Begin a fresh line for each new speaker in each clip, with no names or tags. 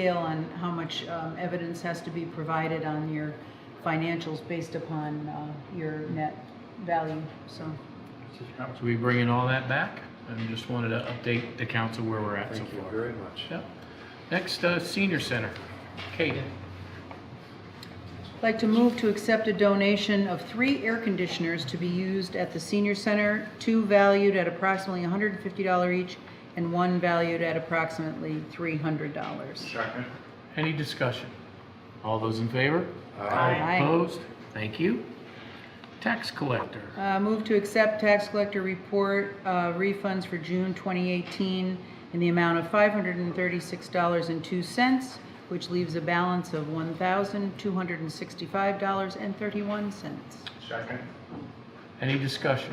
scale on how much um, evidence has to be provided on your financials based upon uh, your net value, so.
So we bringing all that back, and just wanted to update the council where we're at so
Thank you
far.
very much.
Yep. Next, uh, senior center. Kate,
I'd like to move to accept a donation of three air conditioners to be used at the senior center, two valued at approximately $150 each, and one valued at approximately $300.
Second.
any discussion? All those in favor?
Aye.
Aye.
Opposed? Thank you. Tax collector,
Uh, Move to accept tax collector report uh, refunds for June 2018 in the amount of $536.02, which leaves a balance of $1,265.31.
Second.
any discussion?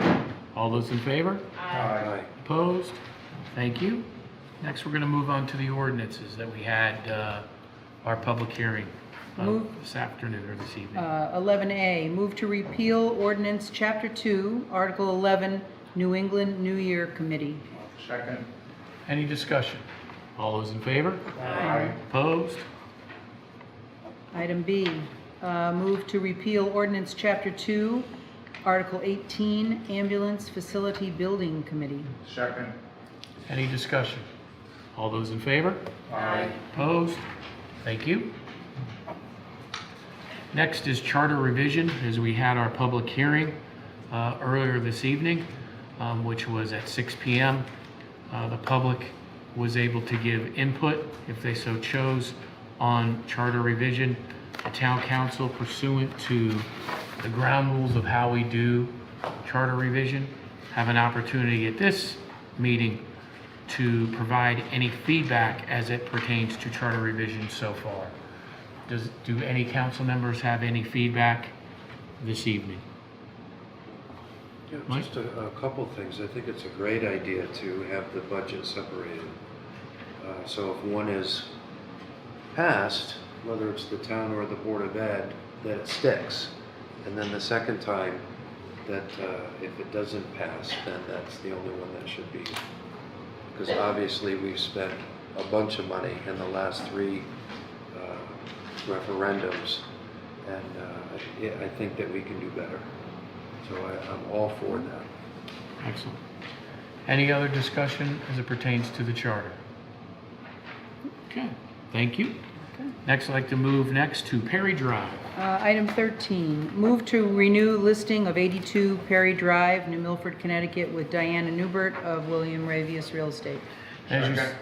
All those in favor?
Aye.
Opposed? Thank you. Next, we're going to move on to the ordinances that we had, uh, our public hearing uh,
Move.
this afternoon or this evening.
Uh, 11A, move to repeal ordinance, Chapter 2, Article 11, New England New Year Committee.
Second.
Any discussion? All those in favor?
Aye.
Opposed?
Item B, uh, move to repeal ordinance, Chapter 2, Article 18, Ambulance Facility Building Committee.
Second.
Any discussion? All those in favor?
Aye.
Opposed? Thank you. Next is charter revision, as we had our public hearing uh, earlier this evening, um, which was at 6 PM. Uh, The public was able to give input, if they so chose, on charter revision. The town council pursuant to the ground rules of how we do charter revision, have an opportunity at this meeting to provide any feedback as it pertains to charter revision so far. Does, do any council members have any feedback this evening?
Yeah,
Mike?
Just a, a couple things. I think it's a great idea to have the budget separated. Uh, so if one is passed, whether it's the town or the Board of Ed, that it sticks. And then the second time, that uh, if it doesn't pass, then that's the only one that should be. Because obviously, we've spent a bunch of money in the last three uh, referendums. And uh, yeah, I think that we can do better. So I, I'm all for that.
Excellent. Any other discussion as it pertains to the charter? Okay, thank you. Next, I'd like to move next to Perry Drive.
Uh, Item 13, move to renew listing of 82 Perry Drive, New Milford, Connecticut, with Diana Newbert of William Ravius Real Estate.
As you, s-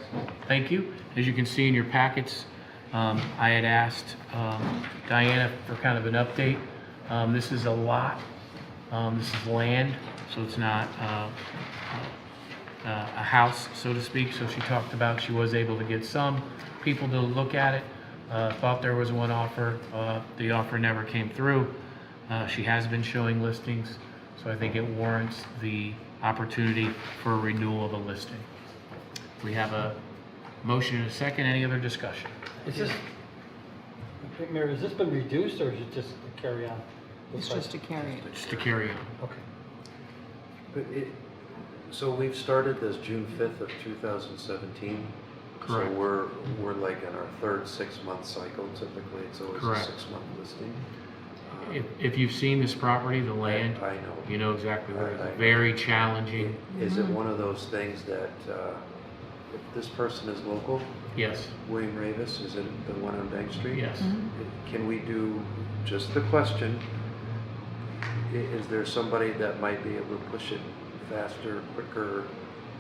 thank you. As you can see in your packets, um, I had asked, um, Diana for kind of an update. Um, this is a lot, um, this is land, so it's not, uh, uh, a house, so to speak. So she talked about she was able to get some people to look at it. Uh, thought there was one offer, uh, the offer never came through. Uh, she has been showing listings, so I think it warrants the opportunity for a renewal of a listing. We have a motion and a second. Any other discussion?
Is this, Mayor, has this been reduced or is it just a carry on?
It's just a carry.
Just to carry on.
Okay.
But it, so we've started this June fifth of two thousand seventeen.
Correct.
So we're, we're like in our third six-month cycle typically, it's always a
Correct.
six-month listing. Uh,
If, if you've seen this property, the land,
I I know.
you know exactly where it
I- I-
is. Very challenging.
Is it one of those things that, uh, if this person is local,
Yes,
William Ravis, is it the one on Bank Street?
yes.
Can we do, just the question, i- is there somebody that might be able to push it faster, quicker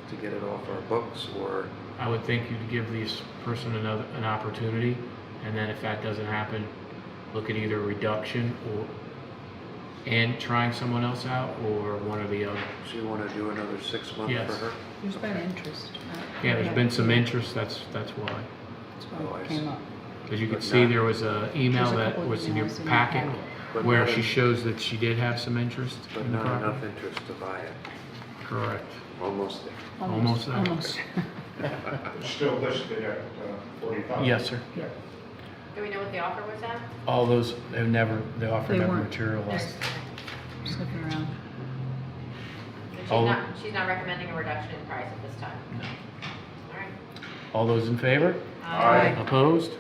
to get it off our books or?
I would think you'd give this person another, an opportunity, and then if that doesn't happen, look at either reduction or, and trying someone else out, or one or the other.
So you want to do another six months
Yes.
for her?
There's been interest. uh,
Yeah, there's been some interest, that's, that's why.
That's why it came up.
As you can
But
see,
not-
there was a email
There's a
that
couple of
was in your
emails in your
packet
But
where
not
she
en-
shows that she did have some interest
But
in the
not
property.
enough interest to buy it.
Correct.
Almost there.
Almost there.
Almost.
It's still listed at uh, forty thousand.
Yes, sir.
Yeah.
Do we know what the offer was at?
All those, have never, the offer
They
never
weren't.
materialized.
Just looking around.
And She's
All-
not, she's not recommending a reduction in price at this time?
No.
All right.
All those in favor?
Aye.
Opposed?